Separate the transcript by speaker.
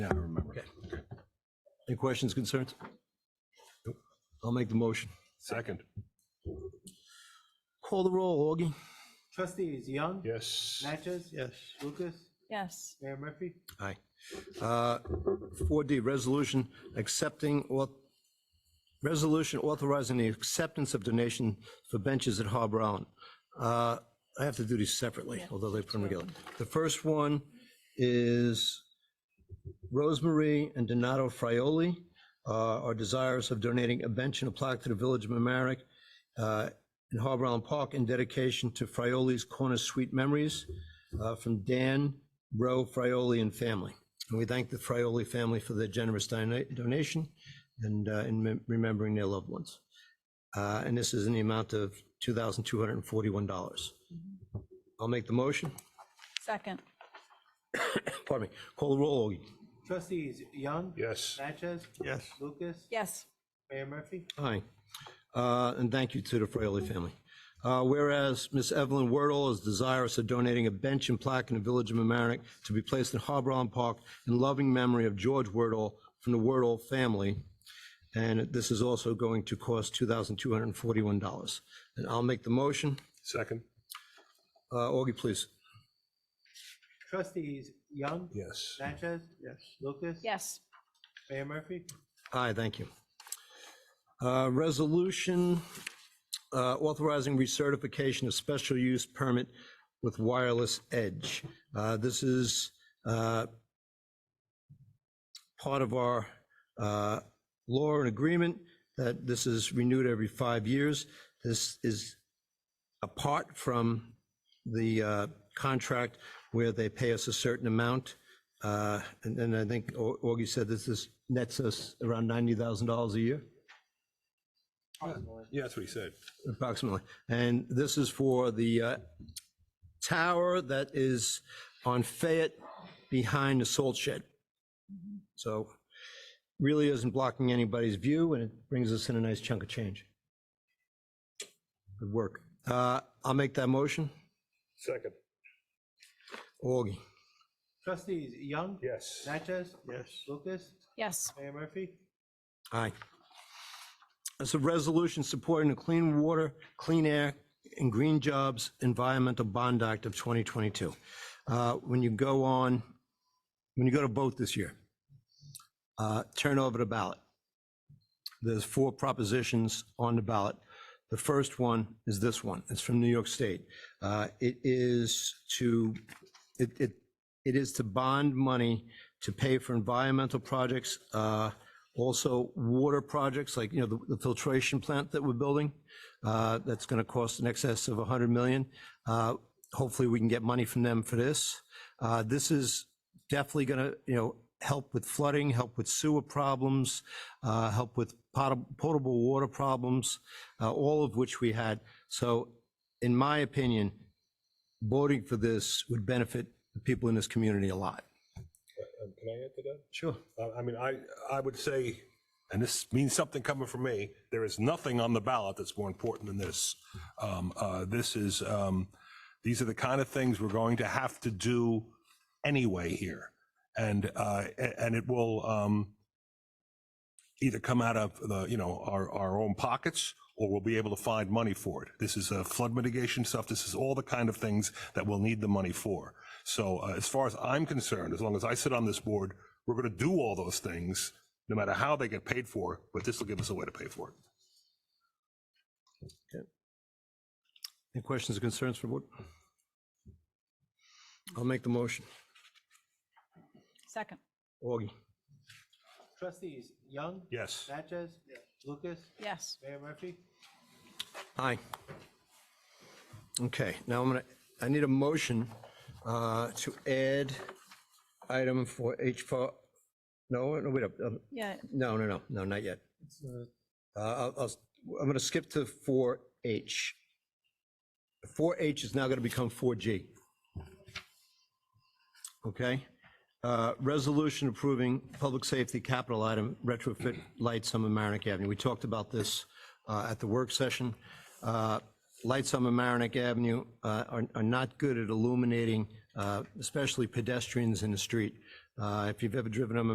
Speaker 1: questions, concerns? I'll make the motion.
Speaker 2: Second.
Speaker 1: Call the roll, Augie.
Speaker 3: Trustees Young?
Speaker 2: Yes.
Speaker 3: Natchez?
Speaker 4: Yes.
Speaker 3: Lucas?
Speaker 5: yes,
Speaker 3: Mayor Murphy?
Speaker 1: Aye. Uh, 4D, resolution accepting, or, resolution authorizing the acceptance of donation for benches at Harbor Island. Uh, I have to do these separately, although they put them together. The first one is Rosemary and Donato Frioli uh, are desirous of donating a bench and a plaque to the Village of Mamaronek uh, in Harbor Island Park in dedication to Frioli's Corner Sweet Memories uh, from Dan Rowe Frioli and family. And we thank the Frioli family for their generous dona- donation and uh, in mem- remembering their loved ones. Uh, And this is in the amount of $2,241. I'll make the motion.
Speaker 5: second,
Speaker 1: Pardon me. Call the roll, Augie.
Speaker 3: Trustees Young?
Speaker 2: Yes.
Speaker 3: Natchez?
Speaker 4: Yes.
Speaker 3: Lucas?
Speaker 5: yes,
Speaker 3: Mayor Murphy?
Speaker 1: Aye. Uh, And thank you to the Fraley family. Uh, Whereas Miss Evelyn Wordle is desirous of donating a bench and plaque in the Village of mamaroneck to be placed in Harbor Island Park in loving memory of George Wordle from the Wordle family. And this is also going to cost $2,241. And I'll make the motion.
Speaker 2: Second.
Speaker 1: Uh, Augie, please.
Speaker 3: Trustees Young?
Speaker 2: Yes.
Speaker 3: Natchez?
Speaker 4: Yes.
Speaker 3: Lucas?
Speaker 5: yes,
Speaker 3: Mayor Murphy?
Speaker 1: Aye, thank you. Uh, Resolution uh, authorizing recertification of special use permit with wireless edge. Uh, This is uh, part of our uh, law and agreement that this is renewed every five years. This is apart from the uh, contract where they pay us a certain amount. Uh, And then I think Au- Augie said this is, nets us around $90,000 a year,
Speaker 2: Yeah, that's what he said.
Speaker 1: approximately. And this is for the uh, tower that is on Fayette behind the salt shed. So really isn't blocking anybody's view, and it brings us in a nice chunk of change. Good work. Uh, I'll make that motion.
Speaker 2: Second.
Speaker 1: Augie.
Speaker 3: Trustees Young?
Speaker 2: Yes.
Speaker 3: Natchez?
Speaker 4: Yes.
Speaker 3: Lucas?
Speaker 5: yes,
Speaker 3: Mayor Murphy?
Speaker 1: Aye. It's a resolution supporting the Clean Water, Clean Air, and Green Jobs Environmental Bond Act of 2022. Uh, When you go on, when you go to vote this year, uh, turn over the ballot. There's four propositions on the ballot. The first one is this one. It's from New York State. Uh, It is to, it, it, it is to bond money to pay for environmental projects, uh, also water projects, like, you know, the the filtration plant that we're building, uh, that's going to cost in excess of 100 million. Uh, Hopefully, we can get money from them for this. Uh, This is definitely going to, you know, help with flooding, help with sewer problems, uh, help with pot- potable water problems, uh, all of which we had. So in my opinion, voting for this would benefit the people in this community a lot.
Speaker 2: Um, Can I add to that? Uh,
Speaker 1: Sure.
Speaker 2: I- I mean, I, I would say, and this means something coming from me, there is nothing on the ballot that's more important than this. Um, uh, This is, um, these are the kind of things we're going to have to do anyway here. And, uh, a- and it will um, either come out of the, you know, our, our own pockets, or we'll be able to find money for it. This is uh, flood mitigation stuff. This is all the kind of things that we'll need the money for. So uh, as far as I'm concerned, as long as I sit on this board, we're going to do all those things, no matter how they get paid for, but this will give us a way to pay for it.
Speaker 1: Any questions or concerns for the board? I'll make the motion.
Speaker 5: second,
Speaker 1: Augie.
Speaker 3: Trustees Young?
Speaker 2: Yes.
Speaker 3: Natchez? Lucas?
Speaker 5: yes,
Speaker 3: Mayor Murphy?
Speaker 1: Aye. Okay, now I'm gonna, I need a motion uh, to add item for H4, no, no, wait, up. um,
Speaker 5: yeah,
Speaker 1: no, no, no, no, not yet. Uh, I'll, I'll, I'm gonna skip to 4H. 4H is now gonna become 4G. Okay? Uh, Resolution approving public safety capital item retrofit lights on Mamaroneck Avenue. We talked about this uh, at the work session. Uh, Lights on Mamaroneck Avenue uh, are are not good at illuminating, uh, especially pedestrians in the street. Uh, If you've ever driven on